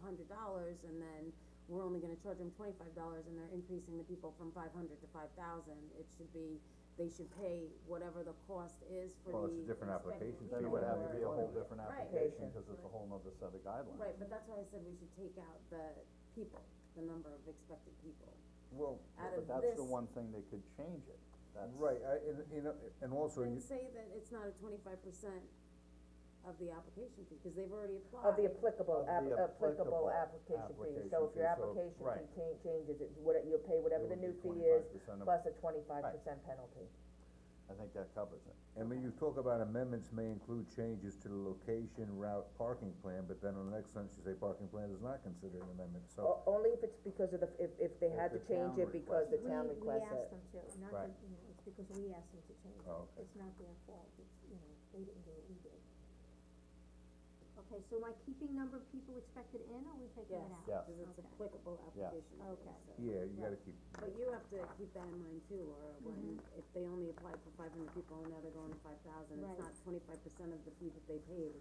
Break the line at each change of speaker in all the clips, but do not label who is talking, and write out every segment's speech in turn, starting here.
hundred dollars, and then we're only gonna charge them twenty-five dollars, and they're increasing the people from five hundred to five thousand, it should be, they should pay whatever the cost is for the.
Well, it's a different application
inspection
fee,
Then it
would
would have
or-
to be a whole different
Right.
application, cause it's a whole nother set of guidelines.
Right, but that's why I said we should take out the people, the number of expected people.
Well,
Out
but
of
that's the
this-
one thing they could change it, that's.
Right, I, and, you know, and also,
And
you,
say that it's not a twenty-five percent of the application fee, cause they've already applied.
Of the applicable,
Of
app-
the applicable
applicable application fee, so if your
application
application
fee, so- right.
fee cha- changes, it's what, it- you'll pay whatever
It
the
would be
new fee is,
25% of-
plus a twenty-five percent penalty.
I think that covers it.
and when you talk about amendments may include changes to the location, route, parking plan, but then on the next sentence you say parking plan is not considered an amendment, so.
Oh.
O- only if it's because of the, if, if they had to
If the
change
town
it because the
requests
town
We, we
requests it.
asked them to, not that,
Right.
you know, it's because we asked them to change it,
Oh, okay.
it's not their fault, it's, you know, they didn't do it, we did. Okay, so am I keeping number of people expected in, or are we taking
Yes,
it out?
Yes.
cause it's
Okay.
applicable application fee,
Okay.
so.
Yeah, you gotta keep,
But you have to keep that in mind too, Laura, when,
Mm-hmm.
if they only applied for five hundred people and now they're going to five thousand, it's
Right.
not twenty-five percent of the fee that they paid,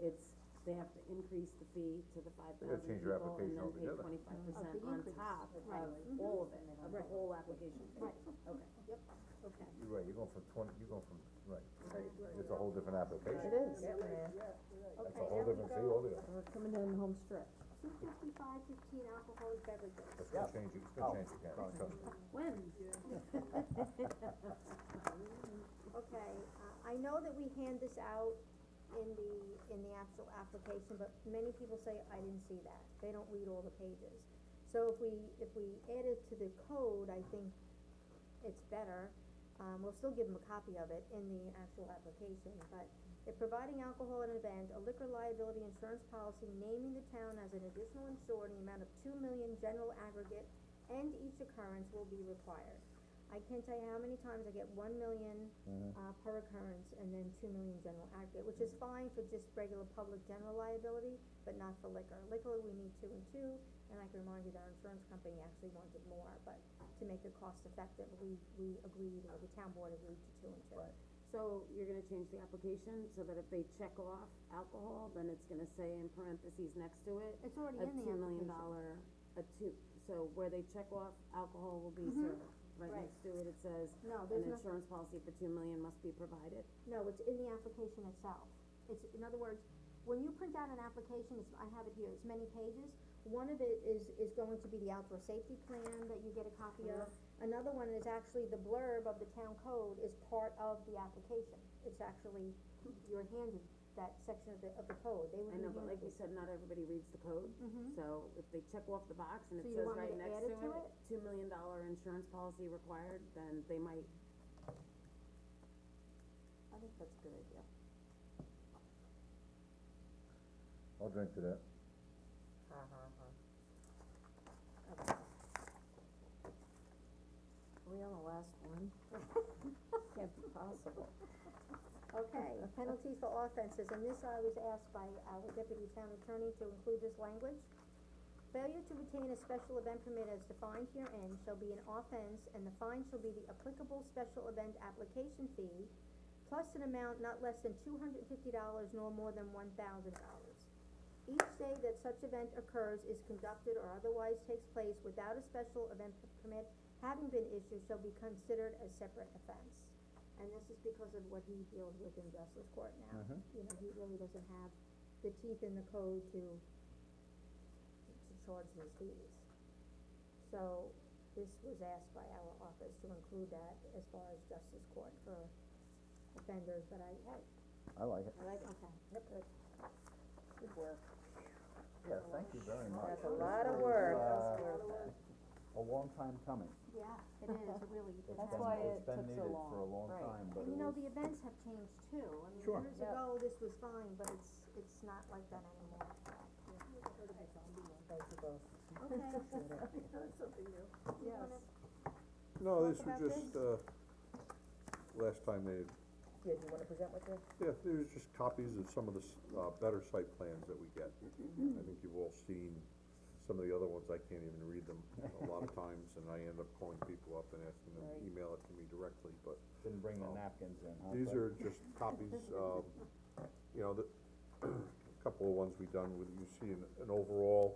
it's, it's, they have to increase the fee to the five
gotta
thousand
change your
people and then
application
pay
altogether.
twenty-five percent
Mm-hmm.
on top of
Of the increase, right.
all of it, of the
Right.
whole application fee.
Right,
Okay.
yep, okay.
you're right, you're going from twenty, you're going from, right, it's a whole different application,
It is,
that's a
Okay,
whole
now we
different fee
go
altogether,
We're coming down the home stretch.
two fifty-five fifteen alcoholic beverages.
that's gonna change, it- it's
Oh,
gonna change again, so.
When?
Okay, uh, I know that we hand this out in the, in the actual application, but many people say, I didn't see that, they don't read all the pages. So if we, if we add it to the code, I think it's better, um, we'll still give them a copy of it in the actual application, but if providing alcohol at an event, a liquor liability insurance policy naming the town as an additional insured in the amount of two million general aggregate and each occurrence will be required. I can't tell you how many times I get one million, uh, per occurrence, and then two million general aggregate, which is fine for just regular public general liability, but not for liquor. Liquor, we need two and two, and I can remind you that our insurance company actually wanted more, but to make it cost effective, we, we agreed, or the town board agreed to two and two.
Right.
So you're gonna change the application so that if they check off alcohol, then it's gonna say in parentheses next to it,
It's already
a
in the
two million
application.
dollar, a two, so where they check off alcohol will be served. Right
Right.
next to it, it says,
Mm-hmm. No,
an
there's no,
insurance policy for two million must be provided.
no, it's in the application itself. It's, in other words, when you print out an application, it's, I have it here, it's many pages. One of it is, is going to be the outdoor safety plan that you get a copy of. Another one is actually the blurb of the town code is part of the application. It's actually, you're handed that section of the, of the code, they would
I
be
know, but like you said,
handed.
not everybody reads the code,
Mhm.
so if they check off the box and it
So
says
you want me
right
to
next
add it
to
to
it, two million dollar insurance policy required, then they might,
I think that's a good idea.
I'll drink to that.
Uh-huh. Okay. Are we on the last one? Can't be possible.
Okay, penalties for offenses, and this I was asked by our deputy town attorney to include this language. Failure to retain a special event permit as defined herein shall be an offense, and the fine shall be the applicable special event application fee, plus an amount not less than two hundred and fifty dollars nor more than one thousand dollars. Each day that such event occurs is conducted or otherwise takes place without a special event permit having been issued shall be considered a separate offense. And this is because of what he deals with in justice court now. You know, he really doesn't have the teeth in the code to, to charge these fees. So, this was asked by our office to include that as far as justice court for offenders, but I, I,
I like it,
I like,
okay.
Good work.
yeah, thank you very much.
That's a
This
lot of
was,
work.
uh, A long time coming,
Yeah, it is, it really, it
it's
has.
been,
why
it's
it
been
took so
needed for a
long,
long
right.
time, but it
And you know,
was,
the events have changed too, I mean,
Sure.
years
Yep.
ago, this was fine, but it's, it's not like that anymore.
Thank you both.
Yes.
No,
talk
these
about
were just, uh, last time they,
Yeah, do you wanna present with this?
yeah, they were just copies of some of the, s- uh, better site plans that we get. I think you've all seen some of the other ones, I can't even read them a lot of times, and I end up calling people up and asking them, to email it to me directly, but
didn't bring the napkins in, huh?
these
But-
are just copies, um, you know, the, a couple of ones we done with, you see an, an overall